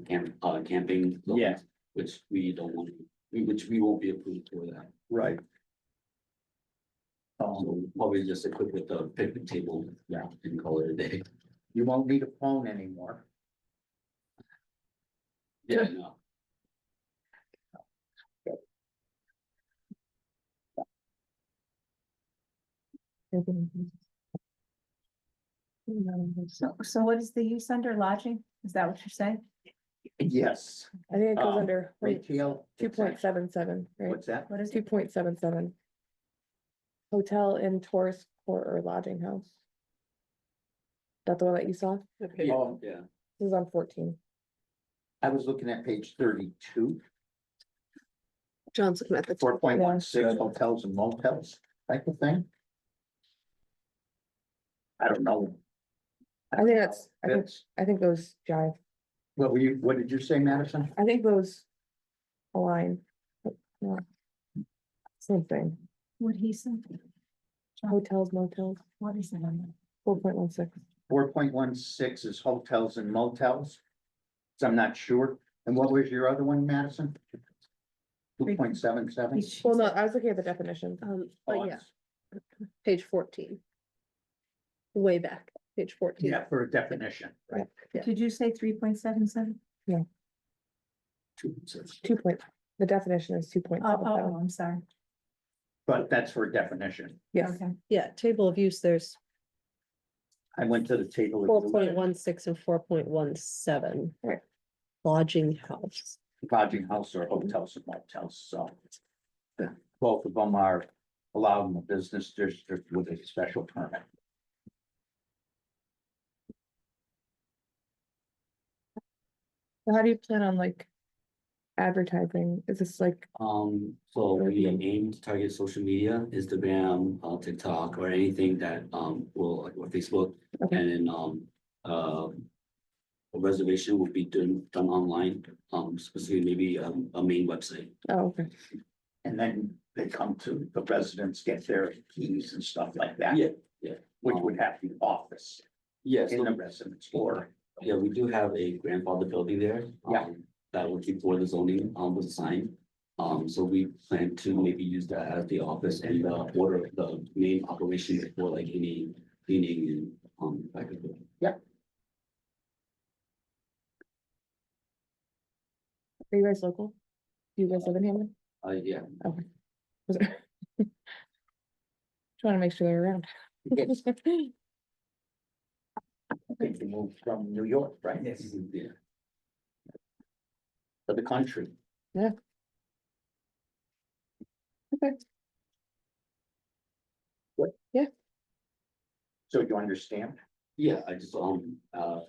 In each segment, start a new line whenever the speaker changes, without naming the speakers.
camp, uh, camping. buildings,
Yeah.
Which we don't want, we- which we won't be approved for that,
Right. Um,
so probably just equipped with a picnic table.
Yeah.
And call it a day.
you won't need a phone anymore.
Yeah, no,
So, so what is the use under lodging? Is that what you're saying?
Yes.
I think it goes
Um,
under
Retail.
two point seven seven, right?
What's that?
What is
Two
it?
point seven seven. Hotel in tourist court or lodging house. That the one that you saw?
yeah, yeah.
This is on fourteen.
Oh, I was looking at page thirty-two,
John's looking at
four point one six hotels and motels type of thing. I don't know.
I think that's, I think,
That's,
I think those jive.
what were you, what did you say, Madison?
I think those align. but, yeah. Same thing.
What he said?
Hotels, motels,
What is it on
four point one six.
Four point one six is hotels and motels. So I'm not sure. And what was your other one, Madison? Two point seven Oh,
that?
seven?
Well, no, I was looking at the definition.
Um, but yeah, page fourteen. Way back, page fourteen.
Yeah, for a definition, right?
yeah.
Did you say three point seven seven?
two, six.
Two point, the definition is two point
Oh,
seven
oh,
seven.
oh, I'm sorry.
But that's for a definition.
Yes.
Okay.
Yeah, table of use, there's
I went to the table.
four point one six and four point one seven.
Right.
Lodging house.
Lodging house or hotels and motels, so. the- Both of them are allowed in the business district with a special permit.
So How do you plan on like advertising? Is this like,
Um, so we aim to target social media, Instagram, uh, TikTok, or anything that, um, will, or Facebook,
Okay.
and then, um, uh. A reservation will be done, done online, um, specifically maybe, um, a main website.
oh, okay,
And then they come to, the residents get their keys and stuff like that.
Yeah, yeah.
Which would have the office
Yes.
in the residence floor.
Yeah, we do have a grandfather building there.
Yeah.
um, That will keep for the zoning on the sign. Um, so we plan to maybe use that as the office and the order, the main operation for like any cleaning and, um, like.
are you guys local? Do you guys live in Hamlin?
Uh, yeah,
Was it- Just wanna make sure they're around.
I think they moved from New York, right?
yes, Mm-hmm. yeah.
For the country. So you understand?
Yeah, I just, um, uh,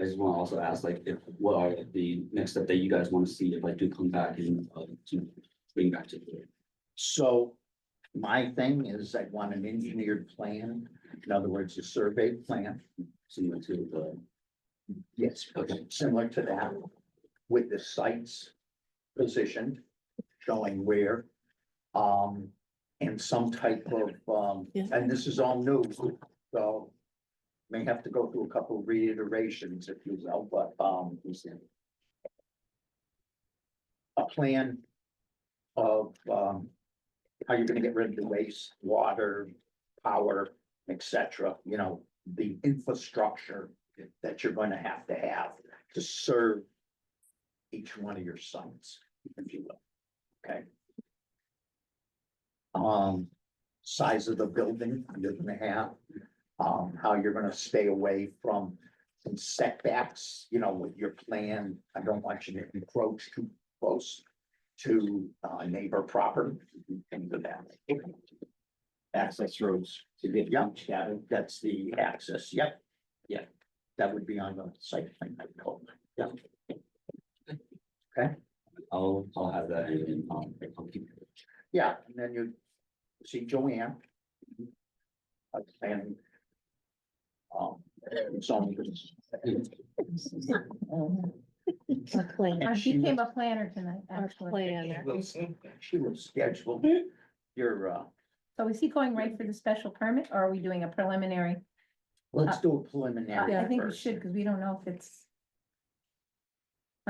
I just wanna also ask, like, if, what are the next step that you guys wanna see if I do come back and, uh, to bring back to here?
So my thing is I want an engineered plan, in other words, a survey plan.
Similar to the,
Yes.
Okay.
Similar to that with the sites positioned, showing where. Um, and some type of, um,
Yeah.
and this is all new, so. May have to go through a couple reiterations, if you will, but, um,
I'm saying,
a plan of, um, how you're gonna get rid of the waste, water, power, et cetera, you know, the infrastructure that you're gonna have to have to serve each one of your sites, if you will, okay? Um, size of the building you're gonna have, um, how you're gonna stay away from some setbacks, you know, with your plan. I don't want you to encroach too close to uh neighbor property and to that. Access roads to get young, yeah, that's the access, yep, yeah. That would be on the site plan, I told, yeah.
I'll, I'll have that and, um, I'll keep.
Yeah, and then you see Joanne. Uh, And. Um, zoning.
A plan.
I
And she
became
was-
Uh, a planner tonight, actually.
planner.
She was scheduled,
Hmm?
your uh,
So is he going right for the special permit or are we doing a preliminary?
let's do a preliminary
I I think we
first.
should, because we don't know if it's